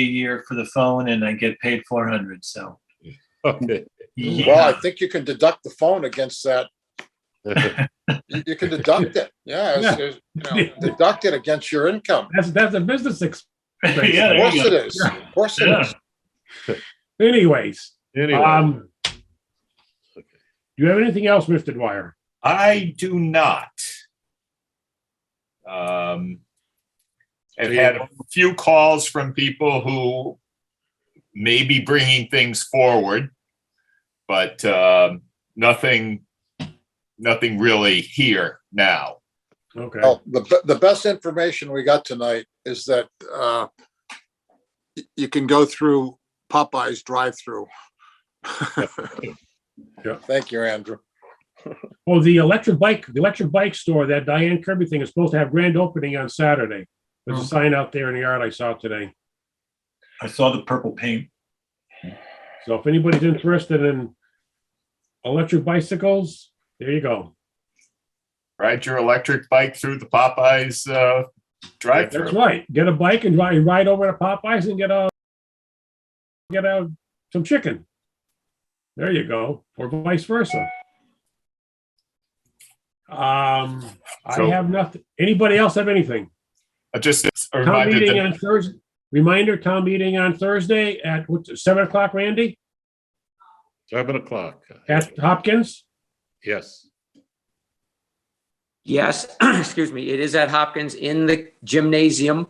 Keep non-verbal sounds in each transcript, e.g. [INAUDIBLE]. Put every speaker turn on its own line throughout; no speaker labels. a year for the phone and I get paid four hundred, so.
Okay.
Well,
Yeah,
I think you can deduct the phone against that.
[LAUGHS]
You you can deduct it. Yeah, it's- it's, you know, deduct it against your income.
That's, that's a business expense.
[LAUGHS] yeah, there
Of course
you
it
go.
is. Of course it
Yeah.
is.
Anyways,
Anyway,
um, do you have anything else, Mr. Dwyer?
I do not. Um, I've had a few calls from people who may be bringing things forward, but um, nothing, nothing really here now.
Okay.
Well, the, be- the best information we got tonight is that, uh, y- you can go through
[LAUGHS]
Popeye's drive-through.
Yeah.
Thank you, Andrew.
Oh, the electric bike, the electric bike store, that Diane Kirby thing is supposed to have grand opening on Saturday. There's a sign out there in the yard I saw today.
I saw the purple paint.
So if anybody's interested in electric bicycles, there you go.
Ride your electric bike through the Popeyes uh,
That's
drive-through.
right. Get a bike and ride, ride over to Popeyes and get a, get a, some chicken. There you go, or vice versa. Um, I
So-
have nothing. Anybody else have anything?
I Just
Town
reminded
meeting
that
on Thursday, reminder, town meeting on Thursday at what, seven o'clock, Randy,
seven o'clock.
at Hopkins?
Yes.
Yes, [CLEARS THROAT] excuse me, it is at Hopkins in the gymnasium,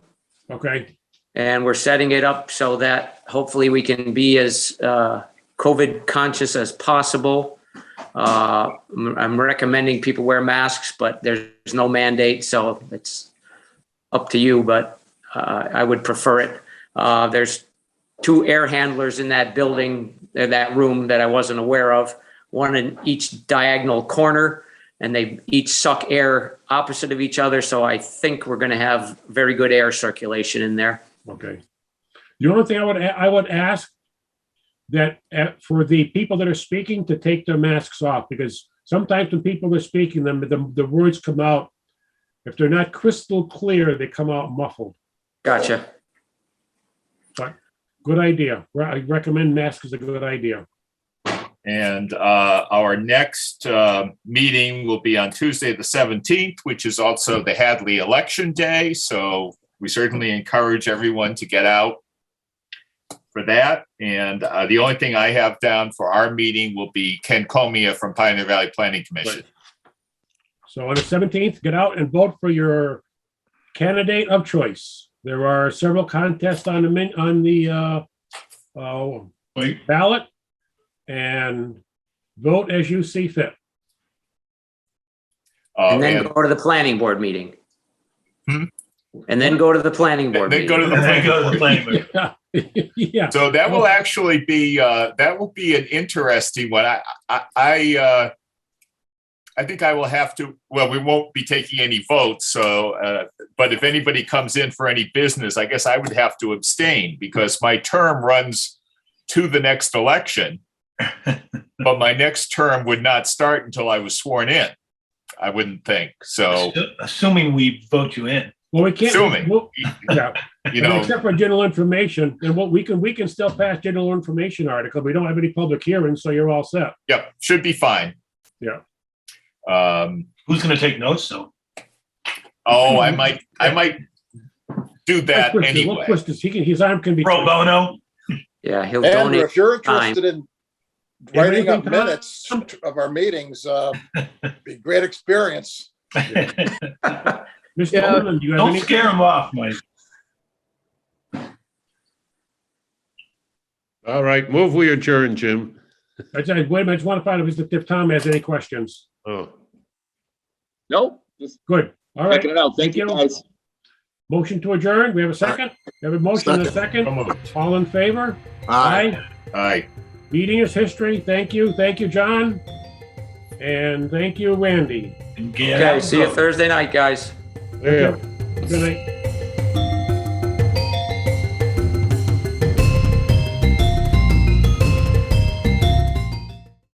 Okay,
and we're setting it up so that hopefully we can be as uh, COVID conscious as possible. Uh, I'm I'm recommending people wear masks, but there's no mandate, so it's up to you, but uh, I would prefer it. Uh, There's two air handlers in that building, uh, that room that I wasn't aware of, one in each diagonal corner and they each suck air opposite of each other. So I think we're going to have very good air circulation in there.
okay. The only thing I would, a- I would ask that uh, for the people that are speaking to take their masks off, because sometimes when people are speaking, them, the, the words come out. If they're not crystal clear, they come out muffled.
Gotcha.
Good idea. Re- I recommend masks is a good idea.
And uh, our next uh, meeting will be on Tuesday, the 17th, which is also the Hadley Election Day. So we certainly encourage everyone to get out for that. And uh, the only thing I have down for our meeting will be Ken Comia from Pioneer Valley Planning Commission.
So on the seventeenth, get out and vote for your candidate of choice. There are several contests on the min, on the uh, uh,
Wait,
ballot. And vote as you see fit.
Uh,
and then
And
go to the planning board meeting.
Hmm?
And then go to the planning board
then go to
meeting.
the
and I
planning
go to the
board.
planning board.
Yeah,
So that will actually be, uh, that will be an interesting one. I, I, I, uh, I think I will have to, well, we won't be taking any votes, so, uh, but if anybody comes in for any business, I guess I would have to abstain because my term runs to the next election. But my next term would not start until I was sworn in, I wouldn't think. So,
Assu- Assuming we vote you in.
well, we can't.
Assuming.
well, Yeah,
[LAUGHS]
[LAUGHS]
you know,
except for general information, and what we can, we can still pass general information article. We don't have any public hearings, so you're all set.
yep, should be fine.
Yeah.
Um,
Who's gonna take notes though?
oh, I might, I might do that
We'll twist it, we'll
anyway.
twist this. He can, his arm can be.
Pro bono?
Yeah, he'll
Andrew,
donate.
if you're
time.
interested in writing up
Everything time.
minutes of our meetings, uh, be great experience.
[LAUGHS] Don't
Mr. Olin, do you have any?
scare him off, Mike.
All right, move we adjourn, Jim.
I said, wait a minute, I just want to find out if Mr. Tom has any questions.
Oh,
No, just
Good. All right.
checking it out. Thank you,
Thank you.
guys.
Motion to adjourn. We have a second? We have a motion and a second? All in favor? Aye.
All right.
Meeting is history. Thank you. Thank you, John. And thank you, Randy.
And get
Okay,
out
see you
and vote.
Thursday night, guys.
yeah.
Good night.